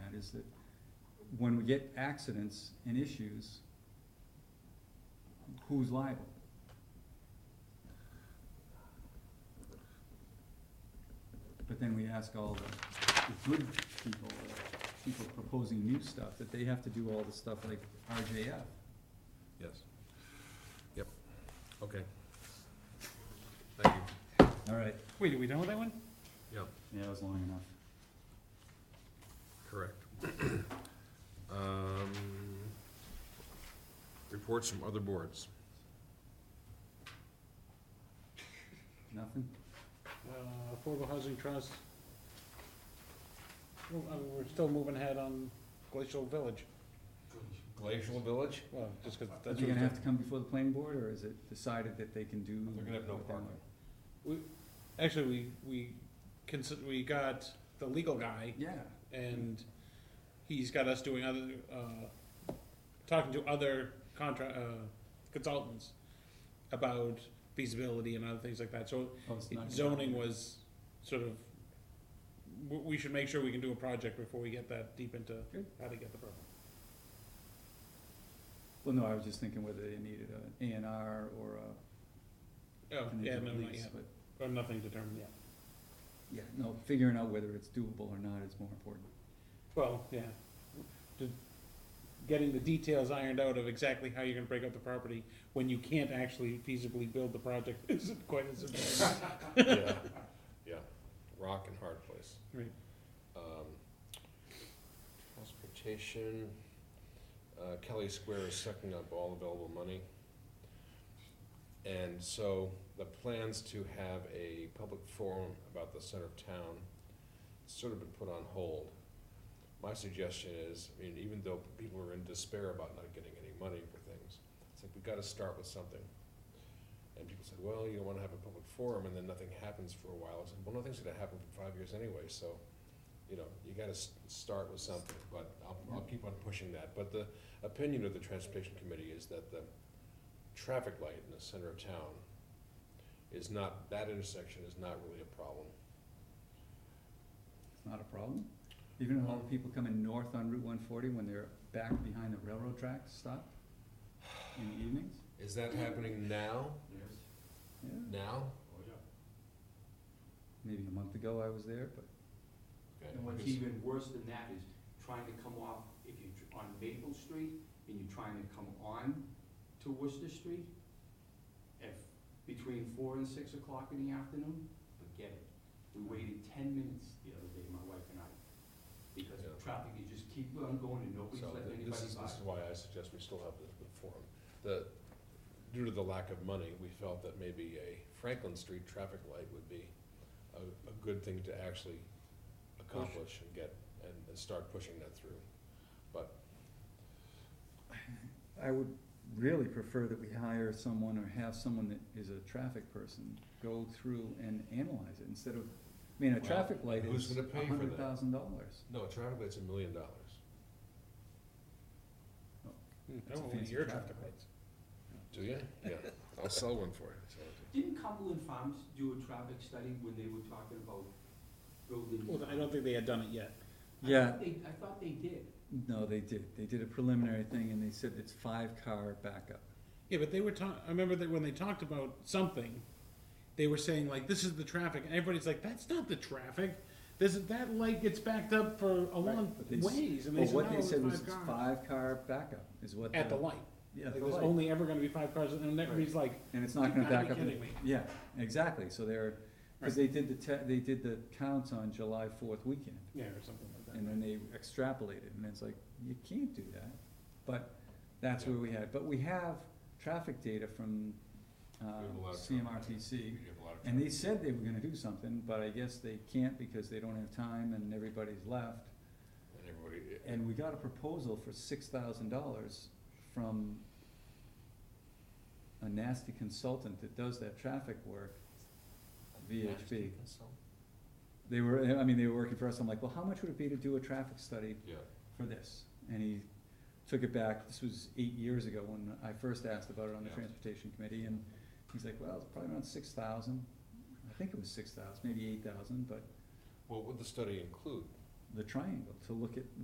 is that when we get accidents and issues, who's liable? But then we ask all the, the good people, or people proposing new stuff, that they have to do all the stuff like RJF. Yes. Yep, okay. Thank you. All right. Wait, are we done with that one? Yeah, Yeah, that was long enough. correct. Um, Reports from other boards. Nothing? Uh, Affordable Housing Trust. Well, I mean, We're still moving ahead on Glacial Village, Glacial Village? well, just 'cause Are that's. they what gonna the- have to come before the planning board, or is it decided that they can do? They're gonna have no what they want? parking. Actually, we, we consider, we got the legal guy Yeah, and he's got us doing other, uh, talking to other contra, uh, consultants about feasibility and other things like that, so oh, it's not. zoning was sort of, we, we should make sure we can do a project before we get that deep into Good. how to get the program. Well, no, I was just thinking whether they needed an A and R or a. Oh, can they yeah, do no, a not lease, yet, but- or nothing determined yet. Yeah, no, figuring out whether it's doable or not is more important. Well, yeah, Just getting the details ironed out of exactly how you're gonna break up the property when you can't actually feasibly build the project isn't quite as important. Yeah, yeah, rock and hard place. Right. Um, Transportation, uh, Kelly Square is sucking up all available money. And so the plans to have a public forum about the center of town sort of been put on hold. My suggestion is, I mean, even though people are in despair about not getting any money for things, it's like, we gotta start with something. And people said, well, you don't wanna have a public forum, and then nothing happens for a while. I said, well, nothing's gonna happen for five years anyway, so, you know, you gotta s- start with something, but I'll, I'll keep on pushing that. But the opinion of the transportation committee is that the traffic light in the center of town is not, that intersection is not really a problem. It's not a problem. Even all the people coming north on Route one forty when they're back behind the railroad tracks, stop in the evenings, Is that happening now? yeah. Now? Maybe a month ago I was there, but Okay. And what's even worse than that is trying to come off, if you're tr- on Maple Street and you're trying to come on to Worcester Street, if, between four and six o'clock in the afternoon, forget it. We waited ten minutes the other day, my wife and I, because the Yeah. traffic, you just keep on going and nobody's So letting th- anybody this is, by. this is why I suggest we still have the the forum. The, due to the lack of money, we felt that maybe a Franklin Street traffic light would be a, a good thing to actually accomplish and get, and, and start pushing that through. I would really prefer that we hire someone or have someone that is a traffic person go through and analyze it instead of, I mean, a Well, traffic light who's is gonna pay a for that? hundred thousand dollars. No, a traffic light's a million dollars. I don't a want fancy Hmm, oh, your traffic traffic light. lights. Do you? Yeah, I'll sell one for you. sell it to Didn't Cumberland Farms do a traffic study when they were talking about building? Well, I don't think they had done it yet. I Yeah. thought they, I thought they did. No, they did, they did a preliminary thing and they said it's five car backup. Yeah, but they were talking. I remember that when they talked about something, they were saying like, "This is the traffic," and everybody's like, "That's not the traffic." This that light gets backed up for a long But they s- ways, and they Well, said, what "No, they it's said was five it's cars." five car backup is what. at the light. Yeah, Like, at the there's light. only ever going to be five cars, and everybody's like, And it's not gonna "You gotta back be up. kidding me. Yeah, exactly, so they're, cause they did the te- they did the counts on July fourth weekend. Yeah, or something like that. And then they extrapolate it, and it's like, you can't do that, but that's where we had, but we have traffic data from, We have a um, lot of you. CMRPC. We have a lot of And they traffic. said they were gonna do something, but I guess they can't because they don't have time and everybody's left. And everybody, And we got a proposal for six thousand dollars from a nasty consultant that does that traffic work, VHB. They were, I mean, they were working for us, I'm like, well, how much would it be to do a traffic study yeah, for this, and he took it back, this was eight years ago when I first asked about it on the Yeah. transportation committee, and he's like, well, it's probably around six thousand, I think it was six thousand, maybe eight thousand, but what would the study include? the triangle, to look at